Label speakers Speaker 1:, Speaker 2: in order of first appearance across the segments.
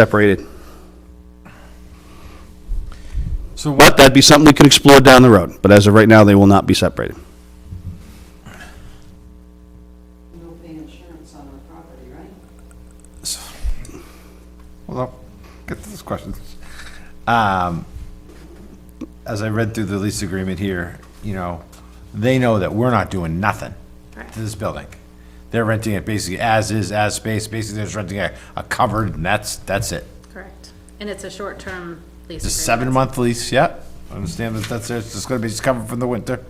Speaker 1: separated.
Speaker 2: So
Speaker 1: But
Speaker 2: what,
Speaker 1: that'd be something we could explore down the road, but as of right now, they will not be separated.
Speaker 3: We don't pay insurance on our property, right?
Speaker 2: hold on, get to this question. Um, As I read through the lease agreement here, you know, they know that we're not doing nothing to this building. They're renting it basically as is, as space, basically they're just renting a, a covered, and that's, that's it.
Speaker 4: Correct. And it's a short-term
Speaker 2: It's
Speaker 4: lease.
Speaker 2: a
Speaker 4: agreement.
Speaker 2: seven-month lease, yep, I understand that that's, it's just gonna be, just covered from the winter.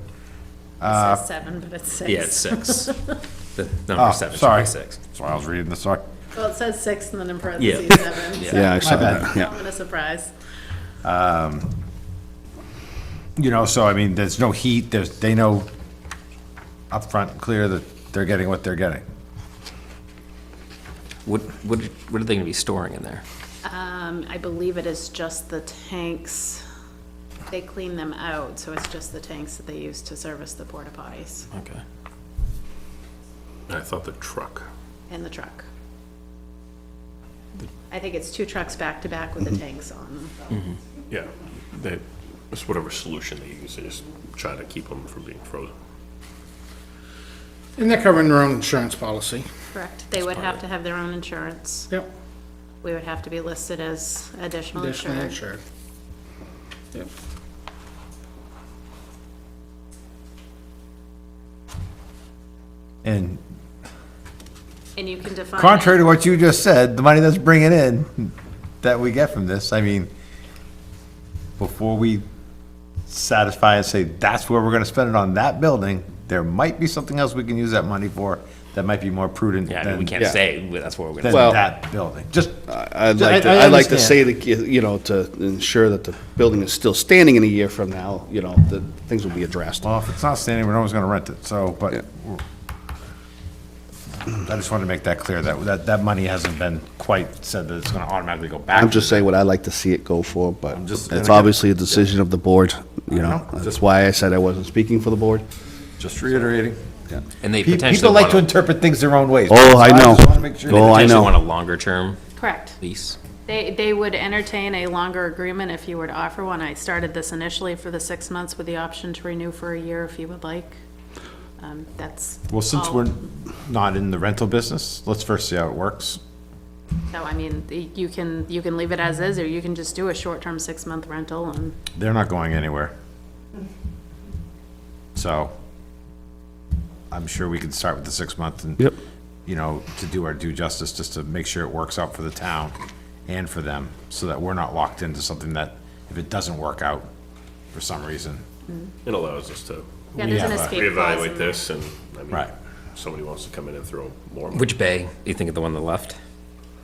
Speaker 2: Uh,
Speaker 4: It says seven, but it's six.
Speaker 5: Yeah, it's six. The
Speaker 2: Oh,
Speaker 5: number seven should
Speaker 2: sorry.
Speaker 5: be six.
Speaker 2: Sorry, I was reading this, sorry.
Speaker 4: Well, it says six and then in parentheses,
Speaker 5: Yeah.
Speaker 4: seven.
Speaker 5: Yeah.
Speaker 4: so
Speaker 1: Yeah, I saw
Speaker 2: bad.
Speaker 1: that,
Speaker 4: Not
Speaker 1: yeah.
Speaker 4: been a surprise.
Speaker 2: You know, so I mean, there's no heat, there's, they know upfront, and clear that they're getting what they're getting.
Speaker 5: What, what, what are they gonna be storing in there?
Speaker 4: Um, I believe it is just the tanks. They clean them out, so it's just the tanks that they use to service the porta potties
Speaker 5: Okay.
Speaker 6: I thought the truck.
Speaker 4: and the truck. I think it's two trucks back-to-back with the tanks on them.
Speaker 6: Yeah, they, it's whatever solution they use, they just try to keep them from being frozen.
Speaker 7: And they're covering their own insurance policy.
Speaker 4: Correct. They would have to have their own insurance.
Speaker 7: Yep.
Speaker 4: We would have to be listed as additional
Speaker 7: Additionally
Speaker 4: insured.
Speaker 7: insured. Yep.
Speaker 2: And
Speaker 4: And you can define.
Speaker 2: contrary to what you just said, the money that's bringing in that we get from this, I mean, before we satisfy and say that's where we're gonna spend it on that building, there might be something else we can use that money for that might be more prudent
Speaker 5: Yeah, I mean, we
Speaker 2: than,
Speaker 5: can't say that's what we're
Speaker 2: than
Speaker 5: gonna,
Speaker 1: Well-
Speaker 2: that building. Just,
Speaker 1: I'd like to,
Speaker 2: I- I
Speaker 1: I'd like to say,
Speaker 2: understand.
Speaker 1: that you know, to ensure that the building is still standing in a year from now, you know, that things will be addressed.
Speaker 2: well, if it's not standing, we're always gonna rent it, so,
Speaker 1: Yeah.
Speaker 2: but I just wanted to make that clear, that, that, that money hasn't been quite said that it's gonna automatically go back.
Speaker 1: I'm just saying what I'd like to see it go for, but
Speaker 2: just-
Speaker 1: it's obviously a decision of the board, you know? That's why I said I wasn't speaking for the board.
Speaker 2: Just reiterating.
Speaker 5: and they
Speaker 2: Pe-
Speaker 5: potentially
Speaker 2: People like
Speaker 5: want,
Speaker 2: to
Speaker 5: a-
Speaker 2: interpret things their own ways.
Speaker 1: Oh, I
Speaker 2: So
Speaker 1: know.
Speaker 2: just wanna make sure-
Speaker 1: Oh, I
Speaker 5: potentially
Speaker 1: know.
Speaker 5: want a longer-term
Speaker 4: Correct.
Speaker 5: lease.
Speaker 4: They, they would entertain a longer agreement if you were to offer one. I started this initially for the six months with the option to renew for a year if you would like. Um, That's.
Speaker 2: Well, since
Speaker 4: all.
Speaker 2: we're not in the rental business, let's first see how it works.
Speaker 4: So, I mean, y- you can, you can leave it as is, or you can just do a short-term six-month rental and
Speaker 2: They're not going anywhere. So I'm sure we can start with the six month and,
Speaker 1: Yep.
Speaker 2: you know, to do our due justice, just to make sure it works out for the town and for them, so that we're not locked into something that, if it doesn't work out for some reason.
Speaker 6: It allows us to
Speaker 4: Yeah, there's an
Speaker 2: Yeah, but-
Speaker 4: escape clause in
Speaker 6: reevaluate
Speaker 4: there.
Speaker 6: this and, I mean,
Speaker 2: Right.
Speaker 6: if somebody wants to come in and throw more. money-
Speaker 5: Which bay? You think of the one on the left?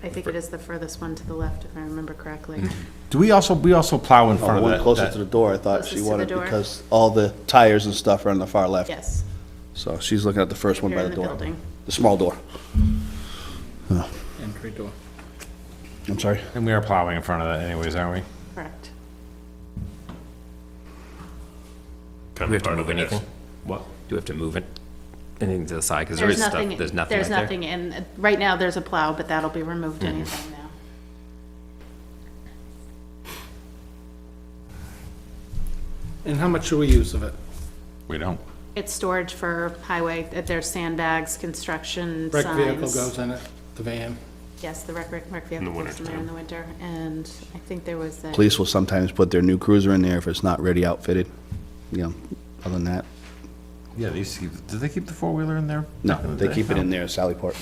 Speaker 4: I think it is the furthest one to the left, if I remember correctly.
Speaker 2: Do we also, we also plow in front
Speaker 1: Oh,
Speaker 2: of
Speaker 1: one
Speaker 2: that-
Speaker 1: closer
Speaker 2: that?
Speaker 1: to the door, I thought
Speaker 4: Closest
Speaker 1: she
Speaker 4: to the
Speaker 1: wanted,
Speaker 4: door.
Speaker 1: because all the tires and stuff are on the far left.
Speaker 4: Yes.
Speaker 1: So she's looking at the first one
Speaker 4: Here
Speaker 1: by
Speaker 4: in
Speaker 1: the
Speaker 4: the
Speaker 1: door.
Speaker 4: building.
Speaker 1: The small door.
Speaker 7: Entry door.
Speaker 1: I'm sorry.
Speaker 2: And we are plowing in front of that anyways, aren't we?
Speaker 4: Correct.
Speaker 6: kind of
Speaker 5: We have to
Speaker 6: part of
Speaker 5: move
Speaker 6: it is-
Speaker 5: anything?
Speaker 6: What?
Speaker 5: Do we have to move it, anything to the side? Because there is stuff, there's nothing
Speaker 4: There's
Speaker 5: out there.
Speaker 4: nothing in, uh, right now, there's a plow, but that'll be removed
Speaker 2: Mm-hmm.
Speaker 4: anytime now.
Speaker 7: And how much do we use of it?
Speaker 2: We don't.
Speaker 4: It's storage for highway, uh, there's sandbags, construction, signs.
Speaker 7: Wrecked vehicle goes in it, the van.
Speaker 4: Yes, the rec, rec, rec vehicle goes in there in the winter, and I think there was a,
Speaker 1: Police will sometimes put their new cruiser in there if it's not ready outfitted, you know, other than that.
Speaker 2: Yeah, they used to keep, did they keep the four-wheeler in there? back
Speaker 1: No,
Speaker 2: in the
Speaker 1: they
Speaker 2: day?
Speaker 1: keep it
Speaker 2: No.
Speaker 1: in there at Sallyport.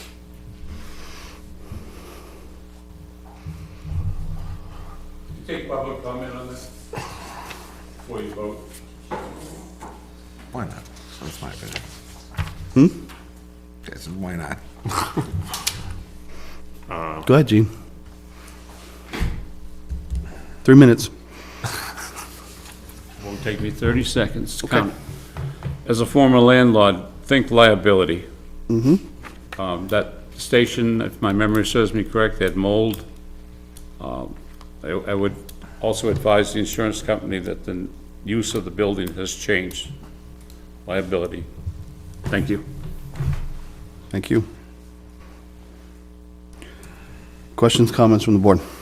Speaker 8: Take public comment on this before you vote.
Speaker 2: Why not? That's my opinion. Hmm? Yes, why not?
Speaker 1: Go ahead, Gene. Three minutes.
Speaker 8: Won't take me 30 seconds to count. As a former landlord, think liability. Mm-hmm. That station, if my memory serves me correct, they had mold. Um, I I would also advise the insurance company that the use of the building has changed. Liability. Thank you.
Speaker 1: Thank you. Questions, comments from the board?